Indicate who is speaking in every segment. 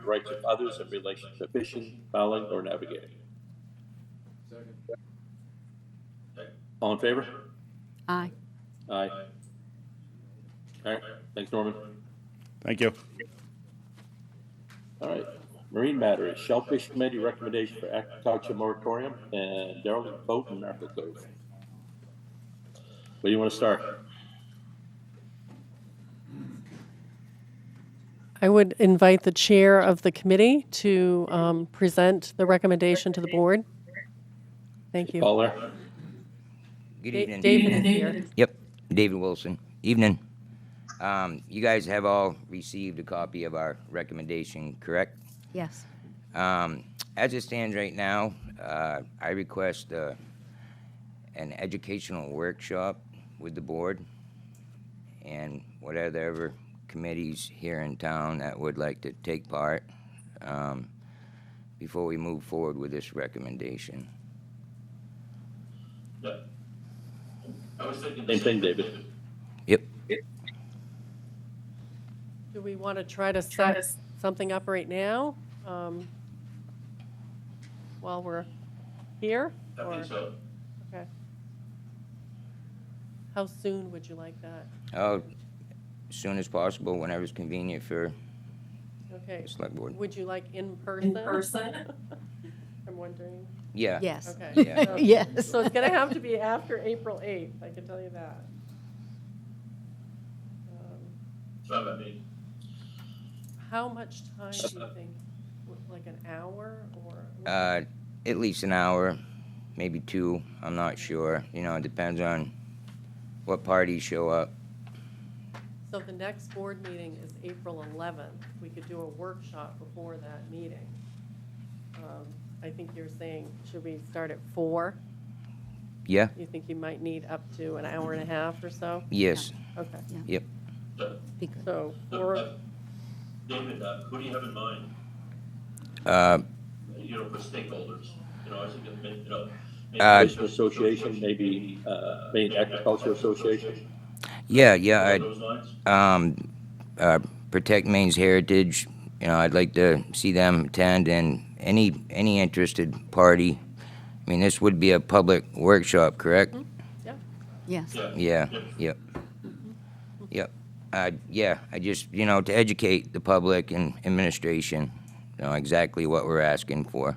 Speaker 1: the rights of others in relation to fishing, fouling, or navigating. All in favor?
Speaker 2: Aye.
Speaker 1: Aye. All right, thanks, Norman.
Speaker 3: Thank you.
Speaker 1: All right, Marine Matters, Shellfish Committee recommendation for agriculture moratorium and derelict boat in Miracle Cove. Where do you want to start?
Speaker 4: I would invite the chair of the committee to um, present the recommendation to the board. Thank you.
Speaker 1: Paul there?
Speaker 5: Good
Speaker 4: Da-
Speaker 5: evening.
Speaker 4: David is here.
Speaker 5: Yep, David Wilson. Evening. Um, You guys have all received a copy of our recommendation, correct?
Speaker 2: Yes.
Speaker 5: Um, As it stands right now, uh, I request uh, an educational workshop with the board and whatever committees here in town that would like to take part um, before we move forward with this recommendation.
Speaker 1: Same thing, David.
Speaker 5: Yep.
Speaker 4: Do we want to try to set something up right now um, while we're here? or- Okay. How soon would you like that?
Speaker 5: Oh, as soon as possible, whenever's convenient for
Speaker 4: Okay.
Speaker 5: the select board.
Speaker 4: Would you like in person? In person? I'm wondering.
Speaker 5: Yeah.
Speaker 2: Yes.
Speaker 4: Okay.
Speaker 5: Yeah.
Speaker 4: so-
Speaker 2: Yes.
Speaker 4: So it's going to have to be after April 8th, I can tell you that. Um, How much time do you think? W- Like an hour or?
Speaker 5: Uh, at least an hour, maybe two, I'm not sure. You know, it depends on what parties show up.
Speaker 4: So the next board meeting is April 11th. We could do a workshop before that meeting. Um, I think you're saying, should we start at four?
Speaker 5: Yeah,
Speaker 4: You think you might need up to an hour and a half or so?
Speaker 5: yes,
Speaker 4: Okay,
Speaker 5: yep.
Speaker 2: Be good.
Speaker 4: so four,
Speaker 1: David, uh, who do you have in mind?
Speaker 5: Uh,
Speaker 1: you know, for stakeholders, you know, I think, it may- you know.
Speaker 5: Uh,
Speaker 1: Maybe Fishing Association, maybe, uh, Maine Agriculture Association,
Speaker 5: yeah, yeah,
Speaker 1: along those lines.
Speaker 5: I, um, uh, Protect Maine's Heritage, you know, I'd like to see them attend and any, any interested party. I mean, this would be a public workshop, correct?
Speaker 2: Yes.
Speaker 5: Yeah, yep. Yep. Uh, yeah, I just, you know, to educate the public and administration, you know, exactly what we're asking for.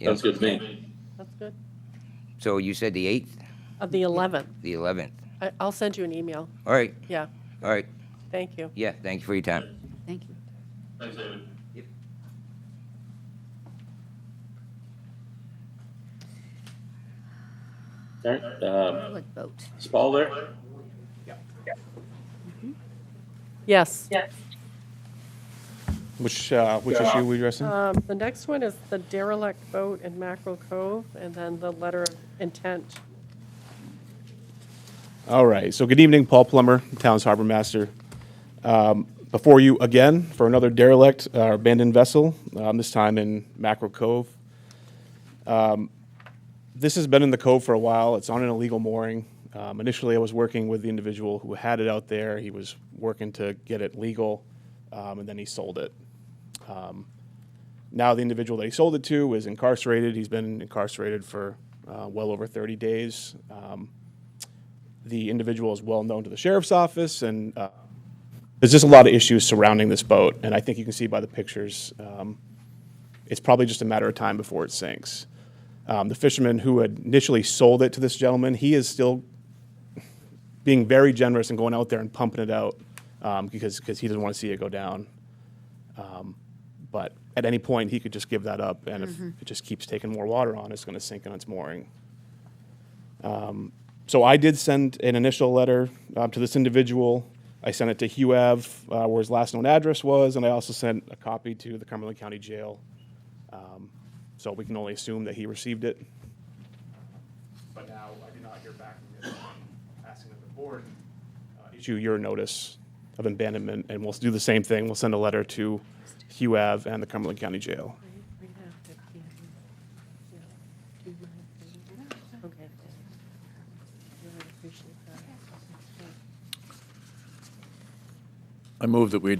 Speaker 5: Yeah.
Speaker 1: Sounds good to me.
Speaker 4: that's good.
Speaker 5: So you said the eighth,
Speaker 4: Of the 11th.
Speaker 5: the eleventh.
Speaker 4: I- I'll send you an email.
Speaker 5: All right,
Speaker 4: Yeah,
Speaker 5: all right.
Speaker 4: thank you.
Speaker 5: Yeah, thank you for your time.
Speaker 2: Thank you.
Speaker 1: Thanks, David. All right, um,
Speaker 2: Let's vote.
Speaker 1: is Paul there?
Speaker 4: Yes.
Speaker 3: Which, uh, which issue we addressing?
Speaker 4: Um, The next one is the derelict boat in Mackerel Cove, and then the letter of intent.
Speaker 3: All right, so good evening, Paul Plummer, Town's Harbor Master. Um, Before you again for another derelict, uh, abandoned vessel, um, this time in Mackerel Cove. Um, This has been in the cove for a while, it's on an illegal mooring. Um, Initially, I was working with the individual who had it out there, he was working to get it legal, um, and then he sold it. Um, Now, the individual that he sold it to is incarcerated, he's been incarcerated for uh, well over 30 days. Um, the individual is well known to the sheriff's office, and uh, there's just a lot of issues surrounding this boat. And I think you can see by the pictures, um, it's probably just a matter of time before it sinks. Um, the fisherman who had initially sold it to this gentleman, he is still being very generous and going out there and pumping it out um, because because he doesn't want to see it go down. Um, but at any point, he could just give that up, and if it just keeps taking more water on, it's going to sink in its mooring. So I did send an initial letter uh, to this individual. I sent it to Hugh Ave, uh, where his last known address was, and I also sent a copy to the Cumberland County Jail. Um, So we can only assume that he received it. But now I did not hear back from him, asking that the board uh, issue your notice of abandonment, and we'll do the same thing. We'll send a letter to Hugh Ave and the Cumberland County Jail.
Speaker 4: Okay. Really appreciate that.
Speaker 6: I move that we